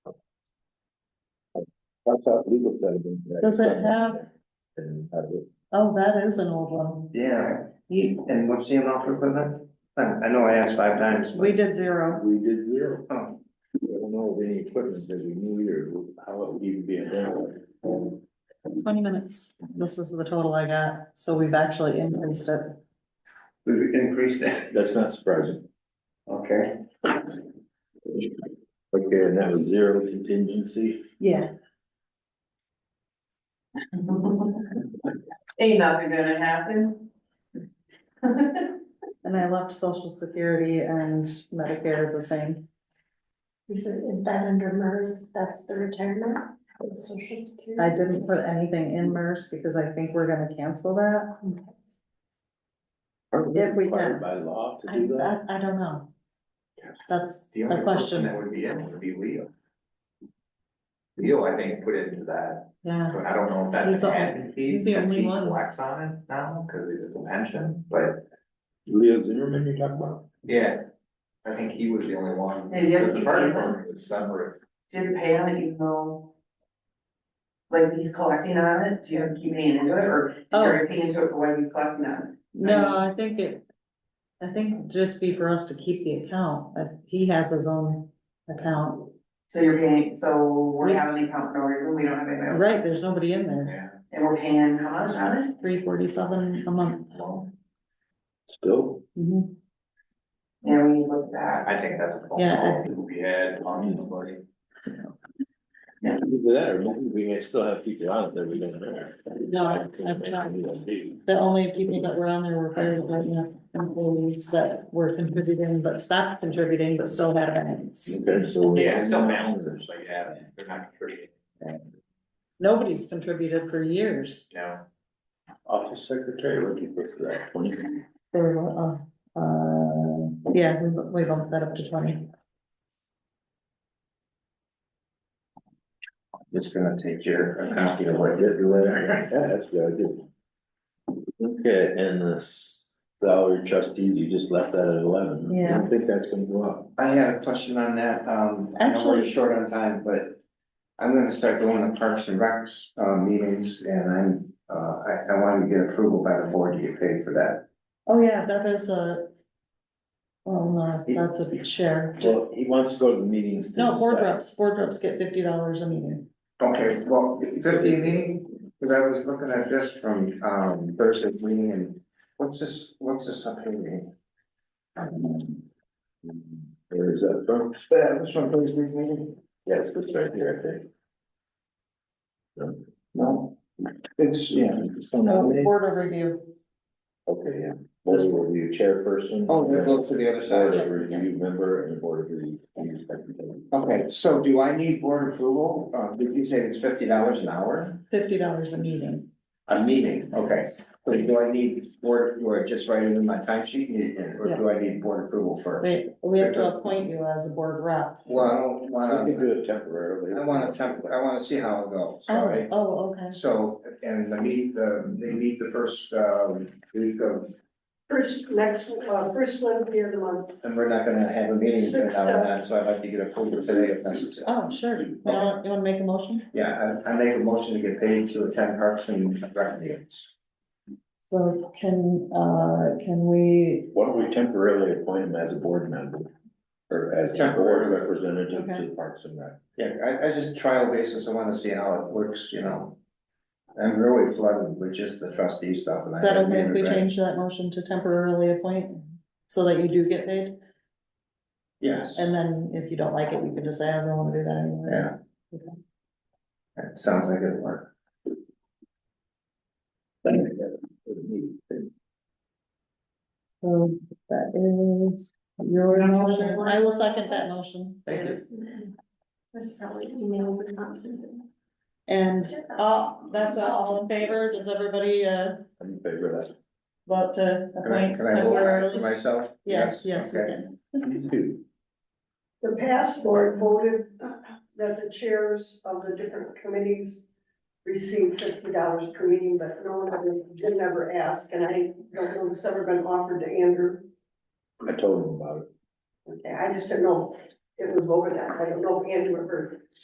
thought legal said it. was- Does it have- And, uh, it- Oh, that is an old one. Yeah, You, and what's the amount for equipment? I, I know I asked five times, but, We did zero. We did zero. oh, I don't know of any equipment that we need or how it would even be available. twenty minutes. This is the total I got, so we've actually increased it. we've increased it. That's not surprising. Okay. Okay, and that was zero contingency. Yeah. Ain't nothing gonna happen. And I left social security and Medicare the same. Is, it- is that under MERS, that's the retirement, the social I security? didn't put anything in MERS because I think we're gonna cancel that. Aren't If we required can. By law to I, do that? I, I don't know. That's The the only person that question, would be in would be Leo. Leo, I think, put into that, yeah. but I don't know if He's that's the- an admin fee, he's the since only he one. collects on it now, cause it's a pension, but, Leo Zimmerman you're talking about? yeah. I think he was the only one. Yeah, you have to The keep fire it. department was separate. Did pay on it even though, like, he's collecting on it, do you have to keep paying into it, or is Oh. there anything into it for when he's collecting on No, I think it, I think it'd just be for us to keep the account, but he has his own account. it? So you're paying, so we We- have an account for no reason, we don't have anybody, else. Right, there's nobody in there. Yeah. and we're paying how much on it? Three forty-seven a month. Well, Still, Mhm. Yeah, we need to look at that. I think that's a phone Yeah. call that we had on somebody. either that or maybe we may still have people on it that we don't know. No, I've tried. The only people that were on there were fire department employees that were contributing, but stopped contributing, but still had events. Okay, so. Yeah, it's still balances, so yeah, they're not contributing, Nobody's contributed for years. no. Office secretary, what do you put for that? Twenty? They were, uh, uh, yeah, we, we bumped that up to twenty. Just gonna take your copy of what you do later. Yeah, that's good, I do. Okay, and the salary trustee, you just left that at eleven. I Yeah. don't think that's gonna go up. I had a question on that, um, I know we're Actually- short on time, but I'm gonna start going to Parks and Recs, uh, meetings, and I'm, uh, I, I wanted to get approval by the board to get paid for that. Oh, yeah, that is a. Well, no, that's a share. Well, he wants to go to the meetings. to No, board decide. reps, board reps get fifty dollars a meeting. Okay, well, fifteen meeting, cause I was looking at this from, um, Thursday's meeting, and what's this, what's this up here? meeting? Where is that from? Yeah, this from Thursday's meeting, Yes, it's right here, I think. no, it's, yeah. it's No, on- board overview. Okay, yeah. Board review chairperson. Oh, that goes to the other Board side. of review member and board of review secretary. Okay, so do I need board approval, uh, did you say it's fifty dollars an hour? fifty dollars a meeting. A meeting, okay. So do I need board, do I just write it in my time sheet, or do I need board approval first? Wait, we have to appoint you as a board rep. Well, I I don't could wanna, do it temporarily. I wanna temp, I wanna see how it goes, Oh, sorry. oh, okay. So, and the meet, the, they meet the first, um, week of, First, next, uh, first Wednesday of the month. and we're not gonna have a meeting right now and then, so I'd like to get approval today if necessary. Oh, sure. You wanna, you wanna make a motion? Yeah, I, I make a motion to get paid to attend Parks and Rec meetings. So can, uh, can we, Why don't we temporarily appoint him as a board member? Or as a board Temporarily. representative to Okay. Parks and Rec? Yeah, I, I just trial basis, I wanna see how it works, you know. I'm really flooded with just the trustee stuff and I. is that haven't okay if we even read- change that motion to temporarily appoint? So that you do get paid? Yes, And then if you don't like it, you can just say, I don't wanna do that anymore. yeah. That sounds like it worked. So that is your motion. I will second that motion. Thank you. Mm-hmm. That's probably email, but not. And, uh, that's all in favor? Does everybody, uh, I'm in favor of vote to Can I, appoint can I vote temporarily? for myself? Yes, yes, we Okay. can. that. Two. The past board voted that the chairs of the different committees receive fifty dollars per meeting, but no one ever, did never ask, and I don't know if it's ever been offered to Andrew. I told him about it. Okay, I just didn't know if it was voted on, I don't know if Andrew ever